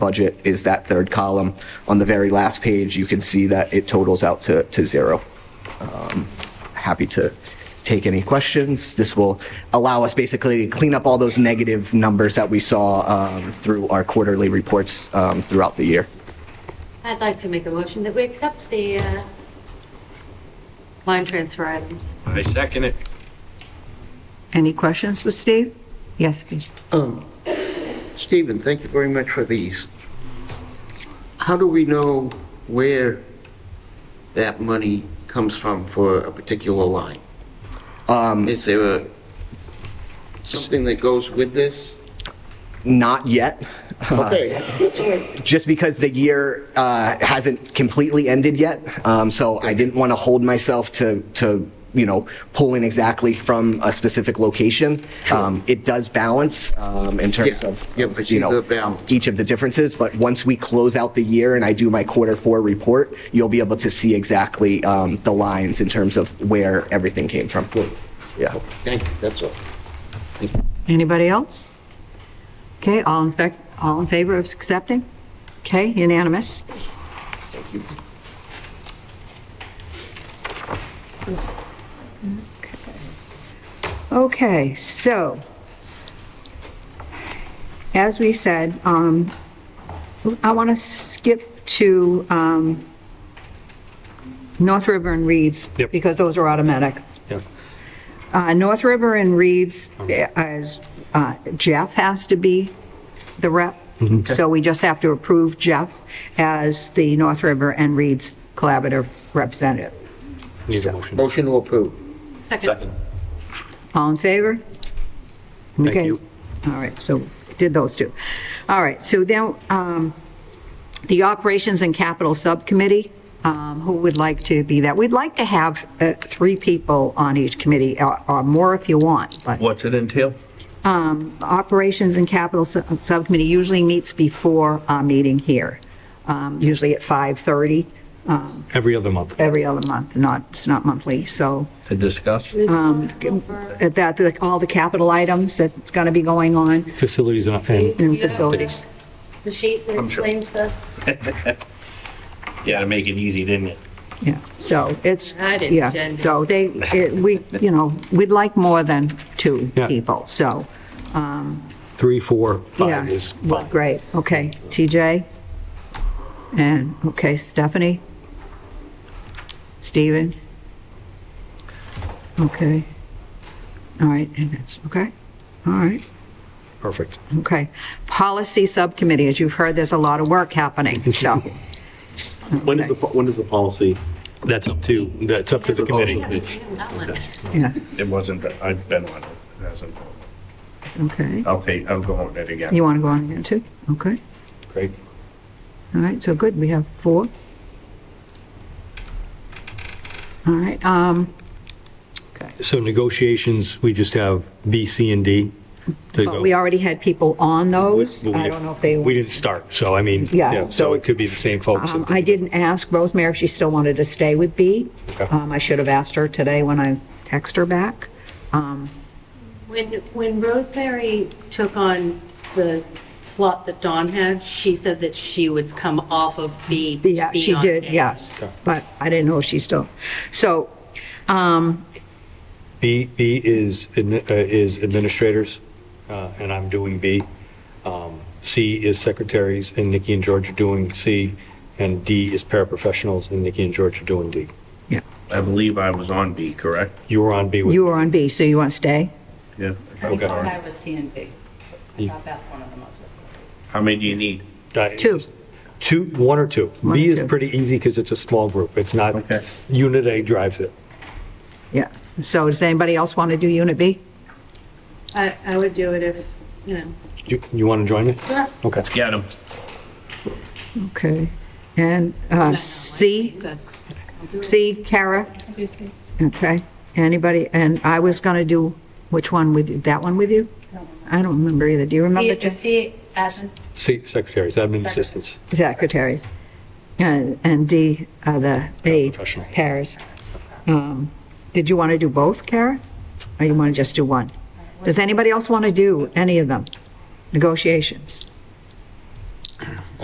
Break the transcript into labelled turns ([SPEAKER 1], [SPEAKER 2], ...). [SPEAKER 1] budget is that third column. On the very last page, you can see that it totals out to, to zero. Um, Happy to take any questions. This will allow us basically to clean up all those negative numbers that we saw um, through our quarterly reports um, throughout the year.
[SPEAKER 2] I'd like to make a motion that we accept the uh, line transfer items.
[SPEAKER 3] I second it.
[SPEAKER 4] Any questions with Steve? Yes, please.
[SPEAKER 5] Stephen, thank you very much for these. How do we know where that money comes from for a particular line? Is there a, something that goes with this?
[SPEAKER 1] Not yet.
[SPEAKER 5] Okay, that's all right.
[SPEAKER 1] just because the year uh, hasn't completely ended yet, um, so I didn't want to hold myself to to you know pulling exactly from a specific location. Um, it does balance um, in terms
[SPEAKER 5] Yeah.
[SPEAKER 1] of
[SPEAKER 5] Yeah,
[SPEAKER 1] of,
[SPEAKER 5] but
[SPEAKER 1] you
[SPEAKER 5] you
[SPEAKER 1] know
[SPEAKER 5] do balance.
[SPEAKER 1] each of the differences. But once we close out the year and I do my quarter four report, you'll be able to see exactly um, the lines in terms of where everything came from. Yeah.
[SPEAKER 5] Thank you, that's all. Thank you.
[SPEAKER 4] Anybody else? Okay, all in, fac- all in favor of accepting? Okay, unanimous.
[SPEAKER 5] Thank you.
[SPEAKER 4] Okay, so, as we said, um, I want to skip to, um, North River and Reeds.
[SPEAKER 6] Yep.
[SPEAKER 4] Because those are automatic.
[SPEAKER 6] Yeah.
[SPEAKER 4] Uh, North River and Reeds, as uh, Jeff has to be the rep.
[SPEAKER 6] Mm-hmm.
[SPEAKER 4] So we just have to approve Jeff as the North River and Reeds Collaborative Representative.
[SPEAKER 6] Need a motion.
[SPEAKER 5] Motion to approve.
[SPEAKER 2] Second.
[SPEAKER 4] All in favor? Okay.
[SPEAKER 6] you.
[SPEAKER 4] All right, so did those two. All right, so then, um, the Operations and Capital Subcommittee, um, who would like to be that? We'd like to have uh, three people on each committee, or or more if you want, but
[SPEAKER 7] What's it entail?
[SPEAKER 4] um, Operations and Capital Sub- Subcommittee usually meets before our meeting here, um, usually at 5:30 um,
[SPEAKER 6] Every other month.
[SPEAKER 4] every other month, not, it's not monthly, so
[SPEAKER 7] To discuss?
[SPEAKER 2] Um,
[SPEAKER 4] at that, the- all the capital items that's going to be going on
[SPEAKER 6] Facilities and- and,
[SPEAKER 4] in facilities.
[SPEAKER 2] The sheet that explains the,
[SPEAKER 3] Yeah, to make it easy, didn't it?
[SPEAKER 4] Yeah, so it's,
[SPEAKER 2] I didn't
[SPEAKER 4] yeah,
[SPEAKER 2] gender.
[SPEAKER 4] so they, it- we, you know, we'd like more than two
[SPEAKER 6] Yeah.
[SPEAKER 4] people, so,
[SPEAKER 6] three, four,
[SPEAKER 4] yeah.
[SPEAKER 6] five is fine.
[SPEAKER 4] Great, okay, TJ? And, okay, Stephanie? Steven? Okay. All right, and that's, okay, all right,
[SPEAKER 6] Perfect.
[SPEAKER 4] okay. Policy Subcommittee, as you've heard, there's a lot of work happening, so,
[SPEAKER 6] When is the, po- when is the policy? That's up to, that's up to the
[SPEAKER 2] Oh,
[SPEAKER 6] committee. It's-
[SPEAKER 2] that one.
[SPEAKER 4] yeah,
[SPEAKER 3] It wasn't, I've been on it. It hasn't.
[SPEAKER 4] okay.
[SPEAKER 3] I'll take, I'll go on it again.
[SPEAKER 4] You want to go on again, too? Okay.
[SPEAKER 6] Great.
[SPEAKER 4] All right, so good, we have four. All right, um,
[SPEAKER 6] So negotiations, we just have B, C, and D to go.
[SPEAKER 4] but we already had people on those.
[SPEAKER 6] We- we-
[SPEAKER 4] I don't know if they,
[SPEAKER 6] We didn't start, so I mean,
[SPEAKER 4] Yeah,
[SPEAKER 6] yeah,
[SPEAKER 4] so-
[SPEAKER 6] so it could be the same folks.
[SPEAKER 4] um, I didn't ask Rosemary if she still wanted to stay with B.
[SPEAKER 6] Okay.
[SPEAKER 4] Um, I should have asked her today when I text her back.
[SPEAKER 2] When, when Rosemary took on the slot that Dawn had, she said that she would come off of B. to
[SPEAKER 4] Yeah,
[SPEAKER 2] be
[SPEAKER 4] she
[SPEAKER 2] on
[SPEAKER 4] did,
[SPEAKER 2] A.
[SPEAKER 4] yes, but I didn't know if she still, so, um,
[SPEAKER 6] B, B is, admi- uh, is administrators, uh, and I'm doing B. Um, C is secretaries, and Nikki and George are doing C. And D is paraprofessionals, and Nikki and George are doing D.
[SPEAKER 4] yeah.
[SPEAKER 3] I believe I was on B, correct?
[SPEAKER 6] You were on B with
[SPEAKER 4] You were on B, so you want to stay?
[SPEAKER 3] Yeah.
[SPEAKER 8] I
[SPEAKER 6] Okay.
[SPEAKER 8] thought I was C and D. I thought that one of them was replaced.
[SPEAKER 3] How many do you need?
[SPEAKER 6] Uh,
[SPEAKER 4] Two.
[SPEAKER 6] Two, one or two.
[SPEAKER 4] One
[SPEAKER 6] B
[SPEAKER 4] or two.
[SPEAKER 6] is pretty easy because it's a small group. It's not,
[SPEAKER 3] Okay.
[SPEAKER 6] Unit A drives it.
[SPEAKER 4] Yeah, so does anybody else want to do Unit B?
[SPEAKER 2] I, I would do it if, you know.
[SPEAKER 6] You, you want to join me?
[SPEAKER 2] Sure.
[SPEAKER 6] Okay.
[SPEAKER 3] Let's get them.
[SPEAKER 4] Okay, and, uh, C?
[SPEAKER 2] Good.
[SPEAKER 4] See, Kara?
[SPEAKER 8] Do you see?
[SPEAKER 4] Okay. Anybody, and I was going to do, which one with you? That one with you? I don't remember either. Do you remember?
[SPEAKER 8] C, C as in
[SPEAKER 6] C, secretaries, admin assistants.
[SPEAKER 4] Jen? Secretaries. And and D, uh, the aide,
[SPEAKER 6] Professional.
[SPEAKER 4] Paris. Um, Did you want to do both, Kara? Or you want to just do one? Does anybody else want to do any of them? Negotiations?